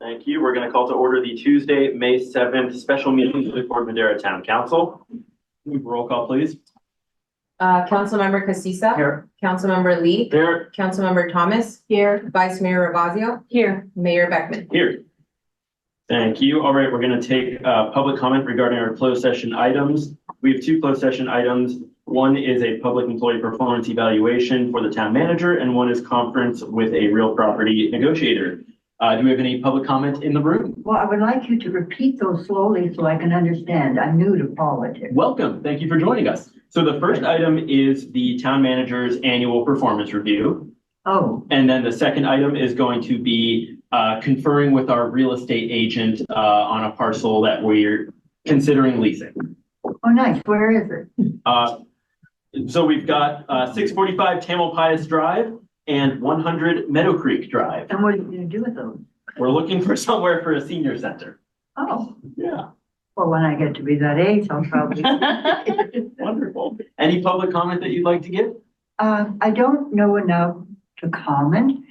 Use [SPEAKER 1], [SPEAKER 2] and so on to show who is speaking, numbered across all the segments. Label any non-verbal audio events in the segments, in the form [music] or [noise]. [SPEAKER 1] Thank you. We're going to call to order the Tuesday, May 7th special meeting of the Port Madera Town Council. Roll call, please.
[SPEAKER 2] Uh, Councilmember Casissa.
[SPEAKER 1] Here.
[SPEAKER 2] Councilmember Lee.
[SPEAKER 1] There,
[SPEAKER 2] Councilmember Thomas. Here. Vice Mayor Ravazio. Here. Mayor Beckman.
[SPEAKER 1] here. Thank you. All right, we're going to take uh, public comment regarding our closed session items. We have two closed session items. One is a public employee performance evaluation for the town manager, and one is conference with a real property negotiator. Uh, Do we have any public comment in the room?
[SPEAKER 3] Well, I would like you to repeat those slowly so I can understand. I'm new to politics.
[SPEAKER 1] Welcome. Thank you for joining us. So the first item is the town manager's annual performance review.
[SPEAKER 3] Oh,
[SPEAKER 1] And then the second item is going to be uh, conferring with our real estate agent uh, on a parcel that we're considering leasing.
[SPEAKER 3] oh, nice. Where is it?
[SPEAKER 1] Uh, So we've got uh, 645 Tamil Pius Drive and 100 Meadow Creek Drive.
[SPEAKER 3] And what are you gonna do with those?
[SPEAKER 1] We're looking for [laughs] somewhere for a senior center.
[SPEAKER 3] Oh,
[SPEAKER 1] Yeah,
[SPEAKER 3] well, when I get to be that age, I'll
[SPEAKER 1] [laughs]
[SPEAKER 3] probably.
[SPEAKER 1] wonderful. Any public comment that you'd like to give?
[SPEAKER 3] Uh, I don't know enough to comment.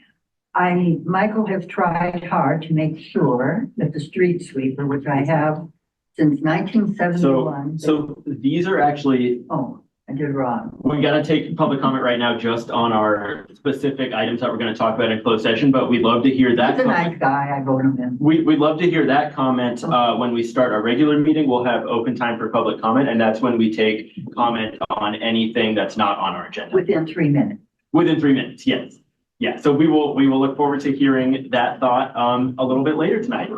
[SPEAKER 3] I, Michael has tried hard to make sure that the street sweeper, which I have since nineteen seventy-one.
[SPEAKER 1] So these are actually,
[SPEAKER 3] Oh, I did wrong.
[SPEAKER 1] we gotta take public comment right now just on our specific items that we're gonna talk about in closed session, but we'd love to hear that.
[SPEAKER 3] He's a
[SPEAKER 1] public-
[SPEAKER 3] nice guy. I vote him in.
[SPEAKER 1] We, we'd love to hear that comment. Uh, when we start our regular meeting, we'll have open time for public comment, and that's when we take comment on anything that's not on our agenda.
[SPEAKER 3] Within three minutes.
[SPEAKER 1] Within three minutes, yes. Yeah, so we will, we will look forward to hearing that thought, um, a little bit later tonight.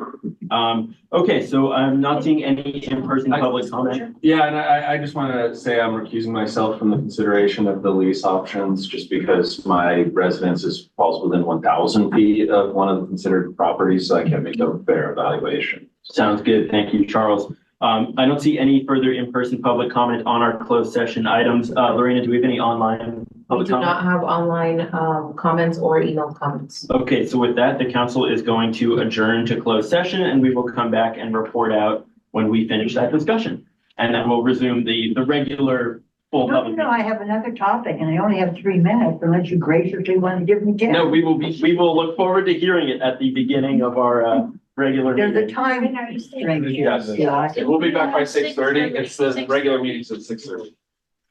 [SPEAKER 1] Um, okay, so I'm not seeing any in-person public comment.
[SPEAKER 4] Yeah, and I, I just want to say I'm recusing myself from the consideration of the lease options just because my residence is, falls within one thousand feet of one of the considered properties, so I can't make a fair evaluation.
[SPEAKER 1] Sounds good. Thank you, Charles. Um, I don't see any further in-person public comment on our closed session items. Uh, Lorena, do we have any online
[SPEAKER 2] We
[SPEAKER 1] public
[SPEAKER 2] do
[SPEAKER 1] comment?
[SPEAKER 2] not have online, um, comments or email comments.
[SPEAKER 1] Okay, so with that, the council is going to adjourn to closed session and we will come back and report out when we finish that discussion. And then we'll resume the, the regular full
[SPEAKER 3] No, no,
[SPEAKER 1] public.
[SPEAKER 3] no,
[SPEAKER 1] meeting.
[SPEAKER 3] I have another topic and I only have three minutes unless you graciously want to give me
[SPEAKER 1] No,
[SPEAKER 3] ten.
[SPEAKER 1] we will be, we will look forward to hearing it at the beginning of our, uh, regular
[SPEAKER 3] There's a
[SPEAKER 1] meeting.
[SPEAKER 3] time constraint here.
[SPEAKER 4] Yes.
[SPEAKER 3] Yeah, I-
[SPEAKER 4] Okay, We'll be back by six thirty. It's the regular meetings at six thirty.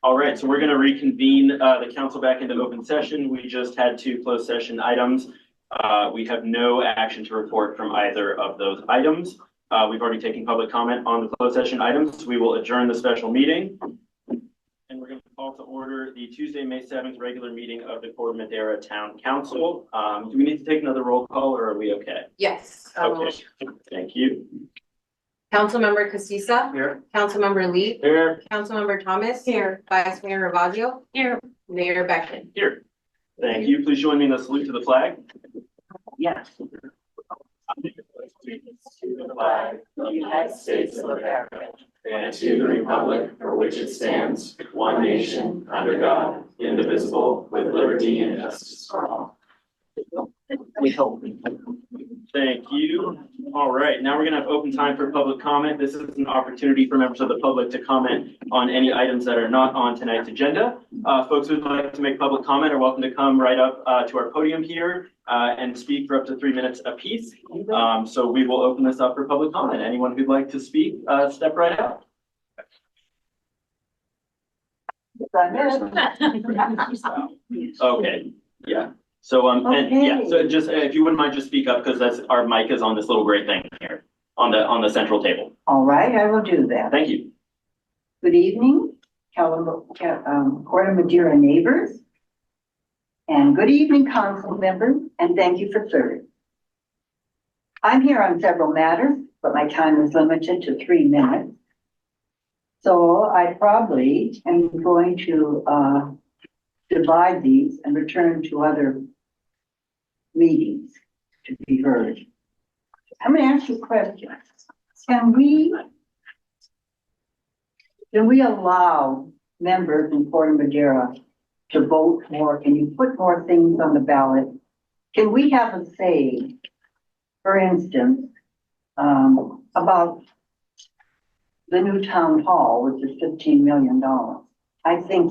[SPEAKER 1] All right, so we're going to reconvene, uh, the council back into open session. We just had two closed session items. Uh, we have no action to report from either of those items. Uh, we've already taken public comment on the closed session items. We will adjourn the special meeting. And we're going to call to order the Tuesday, May seventh, regular meeting of the Port Madera Town Council. Um, do we need to take another roll call or are we okay?
[SPEAKER 2] Yes. Um,
[SPEAKER 1] Okay, thank you.
[SPEAKER 2] Councilmember Casissa.
[SPEAKER 1] Here.
[SPEAKER 2] Councilmember Lee.
[SPEAKER 1] Here.
[SPEAKER 2] Councilmember Thomas. Here. Vice Mayor Ravazio. Here. Mayor Beckman.
[SPEAKER 1] Here. Thank you. Please join me in a salute to the flag.
[SPEAKER 3] Yes.
[SPEAKER 5] United States of America and to the republic for which it stands, one nation, under God, indivisible, with liberty and justice for all.
[SPEAKER 1] Thank you. All right, now we're gonna have open time for public comment. This is an opportunity for members of the public to comment on any items that are not on tonight's agenda. Uh, folks who'd like to make public comment are welcome to come right up, uh, to our podium here, uh, and speak for up to three minutes apiece. Um, so we will open this up for public comment. Anyone who'd like to speak, uh, step right up. Okay, yeah. So, um, and yeah, so just, uh, if you wouldn't mind, just speak up because that's, our mic is on this little gray thing here on the, on the central table.
[SPEAKER 3] All right, I will do that.
[SPEAKER 1] Thank you.
[SPEAKER 3] Good evening, Cala- Ca- um, Corte Madera neighbors. And good evening, council members, and thank you for serving. I'm here on several matters, but my time is limited to three minutes. So I probably am going to uh, divide these and return to other meetings to be heard. I'm going to ask you a question. Can we can we allow members in Port Madera to vote more? Can you put more things on the ballot? Can we have a say, for instance, um, about the new town hall, which is fifteen million dollars? I think